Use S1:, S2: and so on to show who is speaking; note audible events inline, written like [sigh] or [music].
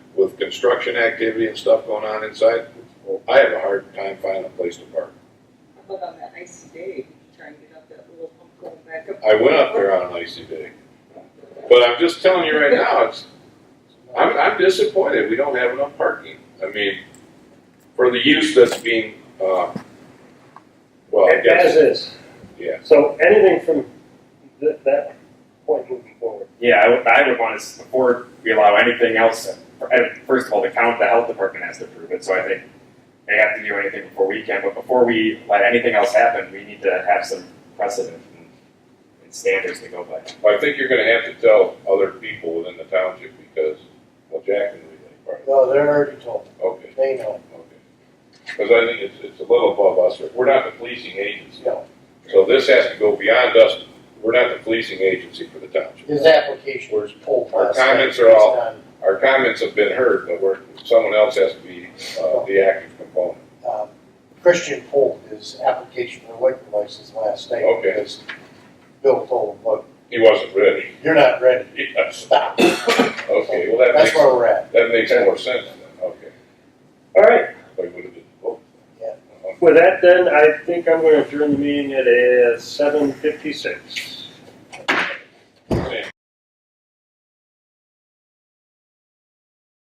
S1: construction activity and stuff going on inside, well, I have a hard time finding a place to park.
S2: How about on that icy day, try and get up that little hump going back up?
S1: I went up there on an icy day. But I'm just telling you right now, it's, I'm, I'm disappointed, we don't have enough parking. I mean, for the use that's being, uh, well, I
S3: As
S1: guess,
S3: is.
S1: yeah.
S3: So anything from th- that point moving forward.
S4: Yeah, I would, I would want us, before we allow anything else, I- first of all, the count, the health department has to approve it, so I think they have to do anything before we can, but before we let anything else happen, we need to have some precedent and- and standards to go by.
S1: Well, I think you're gonna have to tell other people within the township because, well, Jack can relate part of
S3: No, they're already told.
S1: it. Okay,
S3: They know.
S1: okay. Cause I think it's, it's a little above us. We're not the policing agency.
S3: No,
S1: So this has to go beyond us. We're not the policing agency for the township.
S3: his application was pulled
S1: Our
S3: last night.
S1: comments are all-
S3: It's
S1: Our comments have been heard, but we're, someone else has to be, uh, the active component.
S3: not, um, Christian pulled his application for liquor license last night.
S1: Okay.
S3: Because Bill told him, look,
S1: He wasn't ready. [laughs]
S3: you're not ready.
S1: Yes.
S3: Stop.
S1: Okay, well, that
S3: That's
S1: makes,
S3: where we're at.
S1: that makes more sense then, okay.
S5: All right,
S1: But we would've did both.
S3: Yeah.
S1: Uh-huh.
S5: with that then, I think I'm going to adjourn the meeting at uh, 7:56.
S1: Okay.